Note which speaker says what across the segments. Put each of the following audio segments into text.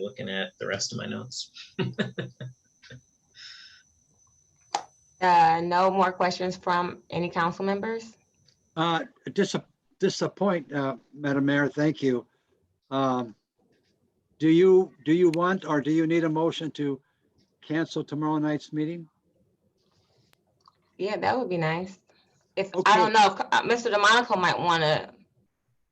Speaker 1: looking at the rest of my notes.
Speaker 2: Uh, no more questions from any council members?
Speaker 3: Uh, dis- Disappoint, uh, Madam Mayor, thank you. Um, Do you, do you want, or do you need a motion to cancel tomorrow night's meeting?
Speaker 2: Yeah, that would be nice. If, I don't
Speaker 3: Okay.
Speaker 2: know, if uh, Mr. DeMonico might want to.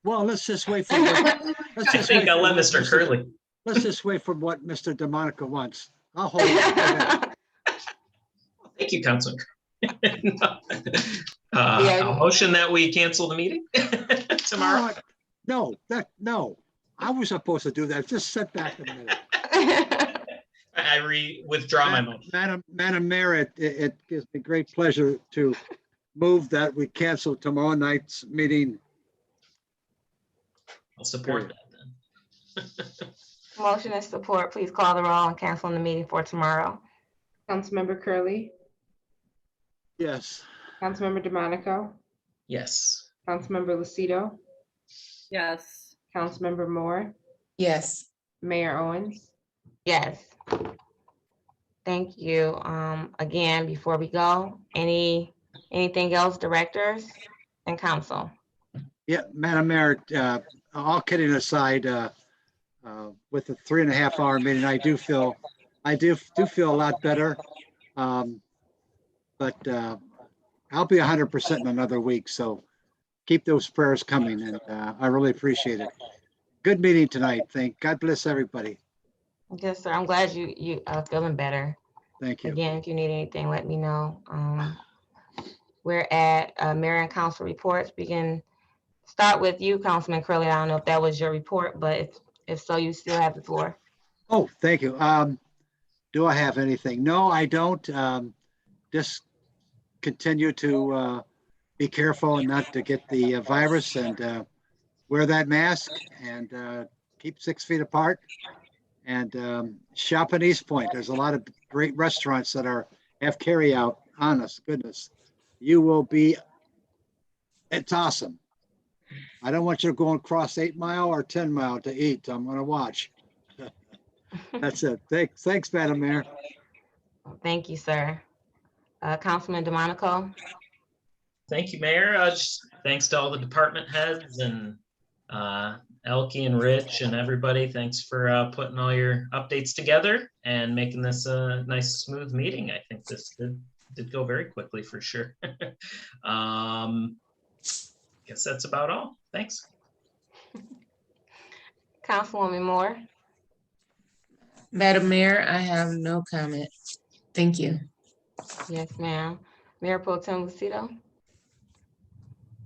Speaker 3: Well, let's just wait for. what-
Speaker 2: I
Speaker 3: let's
Speaker 1: I
Speaker 3: just wait
Speaker 1: think I'll
Speaker 3: for
Speaker 1: let
Speaker 3: what
Speaker 1: Mr. Curley.
Speaker 3: Let's just wait for what Mr. DeMonico wants. I'll hold. it. Okay.
Speaker 1: Thank you, Councilman. Curley. Uh,
Speaker 2: Yeah.
Speaker 1: I'll motion that we cancel the meeting tomorrow.
Speaker 3: Uh, No, that, no. I was supposed to do that. Just sit back a minute.
Speaker 1: I I re, withdraw my motion.
Speaker 3: Madam, Madam Mayor, it, it it gives me great pleasure to move that we cancel tomorrow night's meeting.
Speaker 1: I'll support that then.
Speaker 2: Motion and support, please call the roll on canceling the meeting for tomorrow.
Speaker 4: Councilmember Curley,
Speaker 3: Yes.
Speaker 4: Councilmember DeMonico,
Speaker 1: Yes.
Speaker 4: Councilmember Lucido,
Speaker 5: Yes.
Speaker 4: Councilmember Moore,
Speaker 5: Yes.
Speaker 4: Mayor Owens.
Speaker 2: Yes. Thank you. Um, again, before we go, any, anything else, directors and council?
Speaker 3: Yeah, Madam Mayor, uh, all kidding aside, uh, uh, with the three and a half hour meeting, I do feel, I do, do feel a lot better. Um, But uh, I'll be hundred percent in another week, so keep those prayers coming and uh, I really appreciate it. Good meeting tonight. Thank, God bless everybody.
Speaker 2: Yes, sir. I'm glad you, you are feeling better.
Speaker 3: Thank you.
Speaker 2: Again, if you need anything, let me know. Um, We're at uh, mayor and council reports. We can start with you, Councilman Curley. I don't know if that was your report, but if, if so, you still have the floor.
Speaker 3: Oh, thank you. Um, do I have anything? No, I don't. Um, just continue to, uh, be careful and not to get the uh, virus and, uh, wear that mask and, uh, keep six feet apart. And, um, shop in East Point. There's a lot of great restaurants that are, have carryout. Honest goodness. You will be, it's awesome. I don't want you to go across eight mile or 10 mile to eat. I'm gonna watch. That's it. Thanks, thanks, Madam Mayor.
Speaker 2: Thank you, sir. Uh, Councilman DeMonico,
Speaker 1: Thank you, Mayor. Uh, just Thanks to all the department heads and uh, Elke and Rich and everybody. Thanks for uh, putting all your updates together and making this a nice, smooth meeting. I think this did, did go very quickly for sure. Um, Guess that's about all. Thanks.
Speaker 2: Councilwoman Moore,
Speaker 5: Madam Mayor, I have no comment. Thank you.
Speaker 2: yes, ma'am. Mayor Pro Tem Lucido,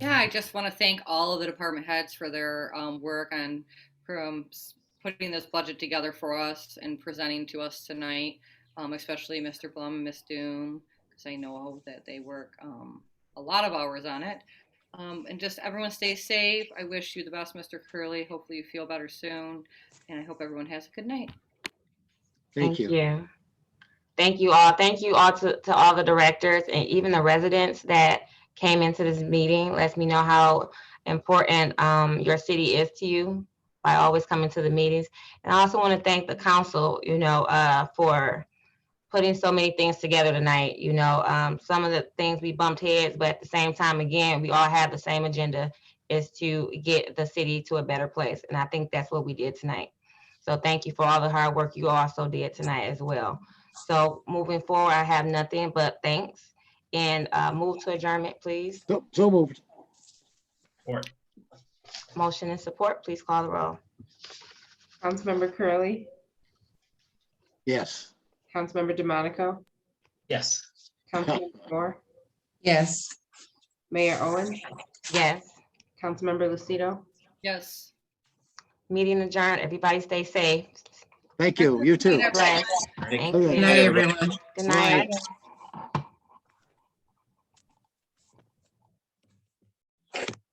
Speaker 6: Yeah, I just want to thank all of the department heads for their um, work on from s- putting this budget together for us and presenting to us tonight, um, especially Mr. Blum and Ms. Doom, because I know that they work um, a lot of hours on it. Um, and just everyone stay safe. I wish you the best, Mr. Curley. Hopefully you feel better soon. And I hope everyone has a good night.
Speaker 3: Thank you.
Speaker 2: Thank you all. Thank you all to, to all the directors and even the residents that came into this meeting. Lets me know how important um, your city is to you by always coming to the meetings. And I also want to thank the council, you know, uh, for putting so many things together tonight. You know, um, some of the things we bumped heads, but at the same time, again, we all have the same agenda is to get the city to a better place. And I think that's what we did tonight. So thank you for all the hard work you also did tonight as well. So moving forward, I have nothing but thanks and uh, move to adjournment, please.
Speaker 3: So- So moved.
Speaker 1: Or-
Speaker 2: Motion and support, please call the roll.
Speaker 4: Councilmember Curley,
Speaker 3: Yes.
Speaker 4: Councilmember DeMonico,
Speaker 1: Yes.
Speaker 4: Councilmember Moore,
Speaker 5: Yes.
Speaker 4: Mayor Owens,
Speaker 2: Yes,
Speaker 4: Councilmember Lucido,
Speaker 6: Yes.
Speaker 2: meeting adjourned. Everybody stay safe.
Speaker 3: Thank you. You too.
Speaker 6: Good night, everyone.
Speaker 2: Bless. Thank you.
Speaker 5: Good night,
Speaker 2: Good
Speaker 5: everyone.
Speaker 2: night.